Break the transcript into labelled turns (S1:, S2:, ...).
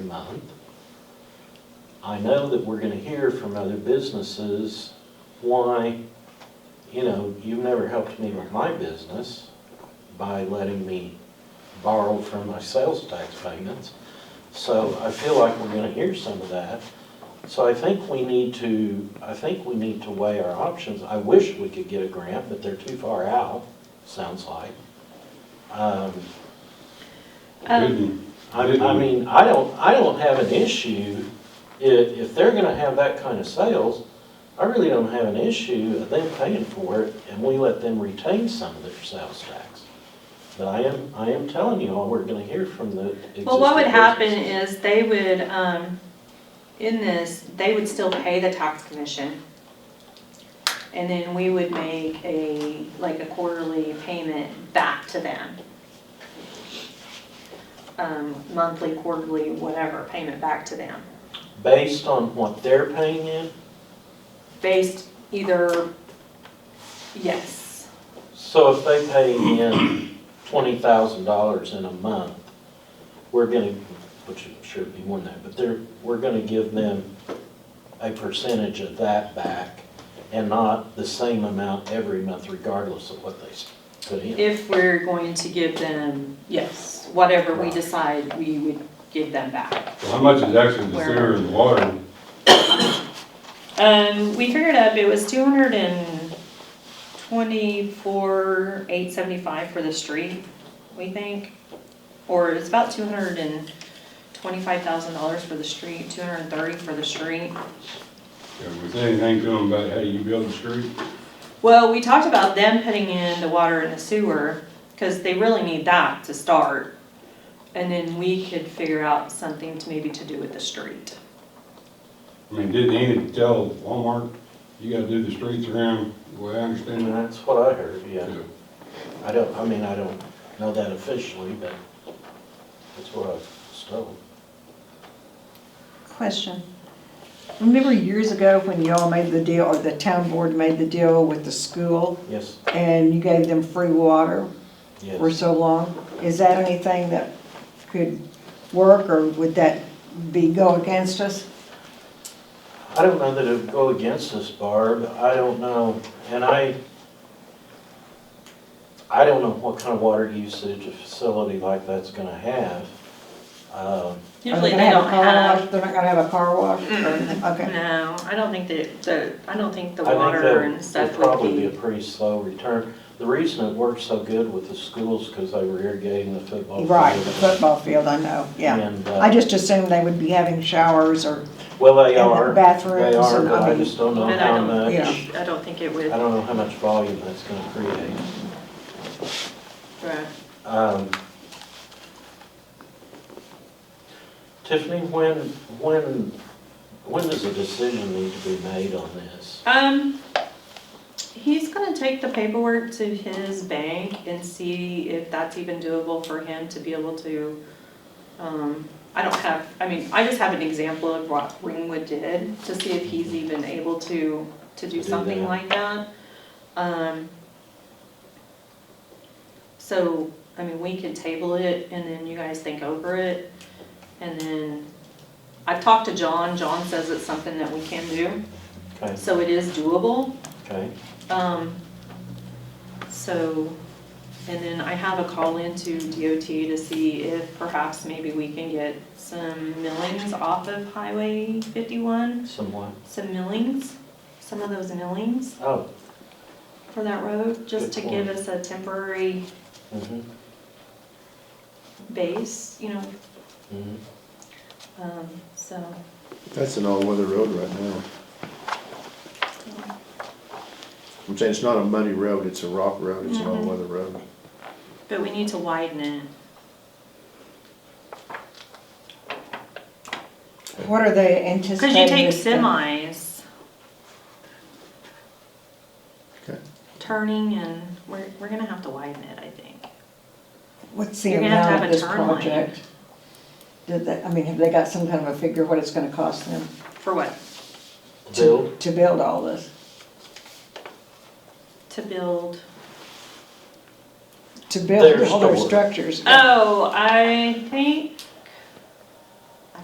S1: month. I know that we're gonna hear from other businesses why, you know, you've never helped me with my business by letting me borrow from my sales tax payments. So I feel like we're gonna hear some of that. So I think we need to, I think we need to weigh our options. I wish we could get a grant, but they're too far out, sounds like. Um,
S2: Um,
S3: Didn't-
S1: I, I mean, I don't, I don't have an issue, if, if they're gonna have that kind of sales, I really don't have an issue of them paying for it, and we let them retain some of their sales tax. But I am, I am telling you all, we're gonna hear from the existing.
S2: Well, what would happen
S1: businesses.
S2: is they would, um, in this, they would still pay the tax commission. And then we would make a, like a quarterly payment back to them. Um, monthly, quarterly, whatever, payment back to them,
S1: Based on what they're paying in,
S2: based either, yes,
S1: so if they pay in twenty thousand dollars in a month, we're gonna, which I'm sure it'd be more than that, but they're, we're gonna give them a percentage of that back and not the same amount every month regardless of what they s- put in.
S2: if we're going to give them, yes, whatever we decide, we would give them back.
S3: How much is actually the sewer and the water?
S2: Um, we figured up it was two hundred and twenty-four, eight seventy-five for the street, we think. Or it's about two hundred and twenty-five thousand dollars for the street, two hundred and thirty for the street.
S3: Yeah, Was anything to them about how you build the street?
S2: Well, we talked about them putting in the water and the sewer, cause they really need that to start. And then we could figure out something to maybe to do with the street.
S3: I mean, didn't Enid tell Walmart, you gotta do the streets around, the way I understand
S1: And
S3: it?
S1: that's what I heard, yeah.
S3: Yeah.
S1: I don't, I mean, I don't know that officially, but that's what I was told.
S4: Question. Remember years ago when y'all made the deal, or the town board made the deal with the school,
S1: Yes,
S4: and you gave them free water for
S1: yes.
S4: so long? Is that anything that could work, or would that be go against us?
S1: I don't know that it would go against us, Barb. I don't know, and I, I don't know what kind of water usage a facility like that's gonna have. Um,
S4: Are they
S2: Usually
S4: gonna
S2: they
S4: a
S2: don't
S4: car
S2: have,
S4: wash? They're not gonna have a car wash? or anything? Okay.
S2: no, I don't think that, the, I don't think the
S1: I think
S2: water
S1: that
S2: and stuff would
S1: Would probably be a pretty slow return. The reason it worked so good with the schools, because they were irrigating the football field.
S4: Right, the football field, I know, yeah.
S1: And,
S4: I
S1: uh,
S4: just assumed they would be having showers or,
S1: well, they
S4: and the
S1: are,
S4: bathrooms
S1: they are,
S4: and,
S1: but
S4: I
S1: I
S4: mean,
S1: just don't know
S2: But I
S1: how
S2: don't,
S1: much,
S4: yeah.
S1: I
S2: I don't think it would,
S1: don't know how much volume that's gonna create.
S2: right.
S1: Um, Tiffany, when, when, when does a decision need to be made on this?
S2: Um, he's gonna take the paperwork to his bank and see if that's even doable for him to be able to, um, I don't have, I mean, I just have an example of what Ringwood did, to see if he's even able to,
S1: To
S2: to
S1: do
S2: do something
S1: that.
S2: like that. Um, so, I mean, we can table it, and then you guys think over it, and then, I've talked to John, John says it's something that we can do.
S1: Okay,
S2: So it is doable.
S1: okay.
S2: Um, So, and then I have a call into DOT to see if perhaps maybe we can get some millings off of Highway 51,
S1: Someone,
S2: some millings, some of those millings
S1: oh,
S2: for that road, just to
S1: Good
S2: give us a temporary
S1: mhm,
S2: base, you know,
S1: mhm.
S2: um, so.
S5: That's an all-weather road right now. I'm saying it's not a muddy road, it's a rock road, it's an
S2: Mhm.
S5: all-weather road.
S2: But we need to widen it.
S4: what are they
S2: Because
S4: anticipating?
S2: you take
S4: this to-
S2: semis.
S5: Okay.
S2: Turning and we're, we're gonna have to widen it, I think.
S4: What's the
S2: You're gonna have to
S4: amount
S2: have
S4: of
S2: a
S4: this
S2: turn lane.
S4: project? Did they, I mean, have they got some kind of a figure what it's gonna cost them
S2: For what?
S1: Bill,
S4: to, to build all this?
S2: To build.
S4: To build
S1: Their
S4: all their
S1: store.
S4: structures?
S2: Oh, I think